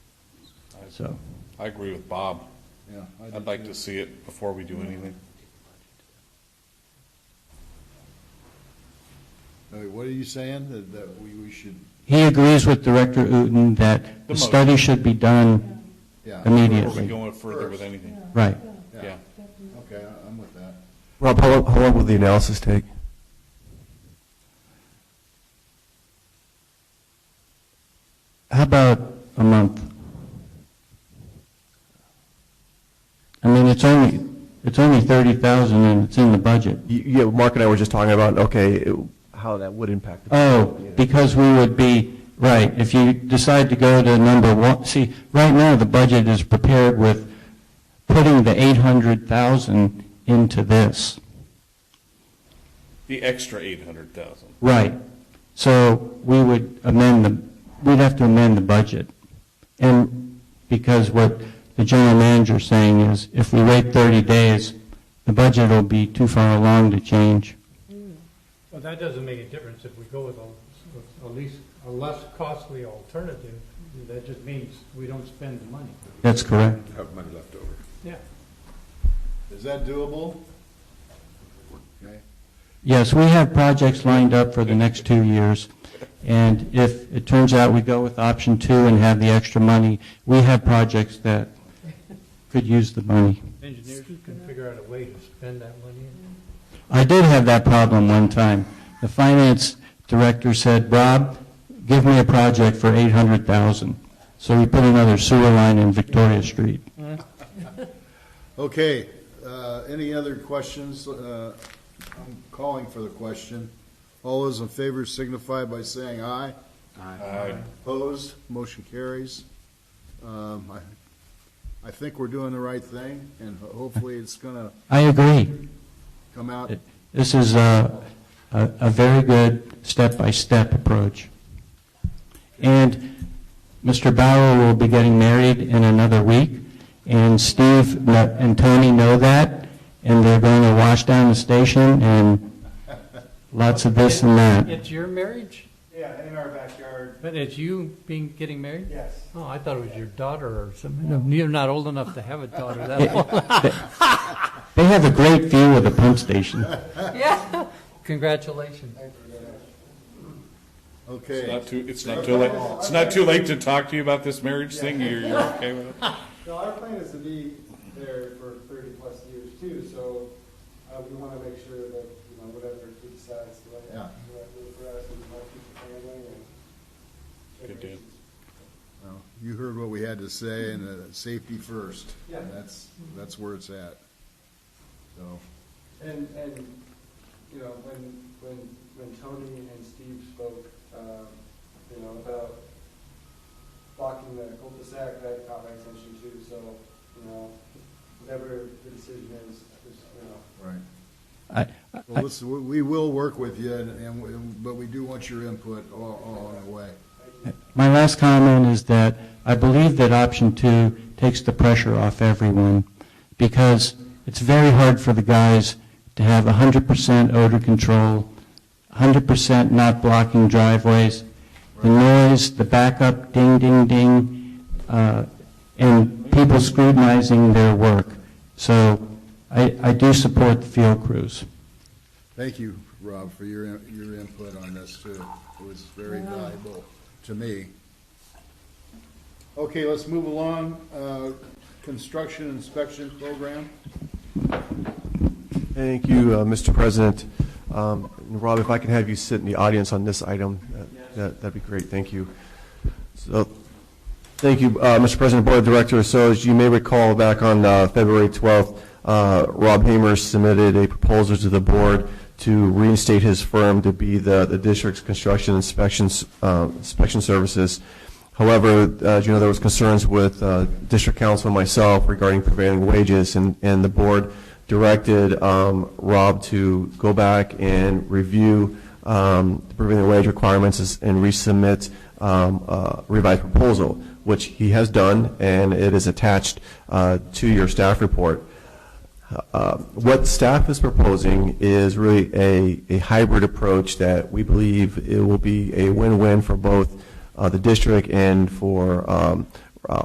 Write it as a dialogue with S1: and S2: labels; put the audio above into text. S1: so.
S2: I agree with Bob.
S3: Yeah. I do
S2: I'd like
S3: too.
S2: to see it before we do anything.
S3: Uh, What are you saying, that, that we, we should,
S1: He agrees with Director Uten that the
S2: The motion.
S1: study should be done
S3: yeah.
S2: Before we
S1: immediately.
S2: go further with anything,
S1: Right.
S2: yeah.
S3: Okay, I- I'm with that.
S4: Rob, how long, how long will the analysis take?
S1: How about a month? I mean, it's only, it's only 30,000 and it's in the budget.
S4: Y- Yeah, Mark and I were just talking about, okay, it- how that would impact. the-
S1: Oh, because we would be, right, if you decide to go to number one, see, right now, the budget is prepared with putting the 800,000 into this.
S2: The extra eight hundred thousand.
S1: Right. So we would amend the, we'd have to amend the budget. And because what the general manager's saying is, if we wait 30 days, the budget will be too far along to change.
S5: Well, that doesn't make a difference if we go with a, a least, a less costly alternative. That just means we don't spend the money.
S1: That's correct.
S6: have money left over.
S5: Yeah.
S3: Is that doable? Okay,
S1: Yes, we have projects lined up for the next two years. And if it turns out we go with option two and have the extra money, we have projects that could use the money.
S5: Engineers can figure out a way to spend that money.
S1: I did have that problem one time. The finance director said, Rob, give me a project for 800,000. So we put another sewer line in Victoria Street.
S3: Okay. uh, any other questions? Uh, I'm calling for the question. All those in favor signify by saying aye.
S2: Aye.
S3: Opposed, motion carries. Um, I, I think we're doing the right thing, and ho- hopefully it's gonna
S1: I agree.
S3: come out.
S1: It- This is a, a a very good step-by-step approach. And Mr. Bauer will be getting married in another week, and Steve kn- and Tony know that, and they're going to wash down the station and lots of this and that.
S5: It's your marriage,
S7: Yeah, in our backyard,
S5: but it's you being, getting married?
S7: yes.
S5: Oh, I thought it was your daughter or something. You're not old enough to have a daughter that
S1: Yeah.
S5: old.
S1: They have a great view of the pump station.
S5: Yeah. Congratulations.
S2: It's
S3: Okay,
S2: not too, it's not too late, it's not too late to talk to you about this marriage thing, you're, you're okay with it?
S7: So our plan is to be there for thirty-plus years too, so uh, we want to make sure that, you know, whatever he decides to let,
S3: Yeah.
S7: let live for us and let keep the family and.
S2: Good deal.
S3: well, you heard what we had to say, and uh, safety first.
S7: Yeah.
S3: And That's, that's where it's at. So,
S7: And, and, you know, when, when, when Tony and Steve spoke, um, you know, about blocking the cul-de-sac, that caught my attention too, so, you know, whatever the decision is, just, you know,
S3: right.
S1: I-
S3: Well, listen, we- we will work with you, and- and, we- but we do want your input all, all along the way.
S1: My last comment is that I believe that option two takes the pressure off everyone because it's very hard for the guys to have 100% odor control, 100% not blocking driveways, the noise, the backup, ding, ding, ding, uh, and people scrutinizing their work. So I, I do support the field crews.
S3: Thank you, Rob, for your, your input on this too. It was very valuable to me. Okay, let's move along. Uh, Construction inspection program.
S4: Thank you, uh, Mr. President. Um, and Rob, if I can have you sit in the audience on this item, that- that- that'd be great, thank you. So, thank you, uh, Mr. President, Board of Directors. So as you may recall, back on uh, February 12th, uh, Rob Hamer submitted a proposal to the board to reinstate his firm to be the the district's construction inspections, uh, inspection services. However, uh, as you know, there was concerns with uh, district council and myself regarding prevailing wages, and and the board directed um, Rob to go back and review um, the prevailing wage requirements is- and resubmit um, a revised proposal, which he has done, and it is attached uh, to your staff report. Uh, What staff is proposing is really a, a hybrid approach that we believe it will be a win-win for both uh, the district and for um,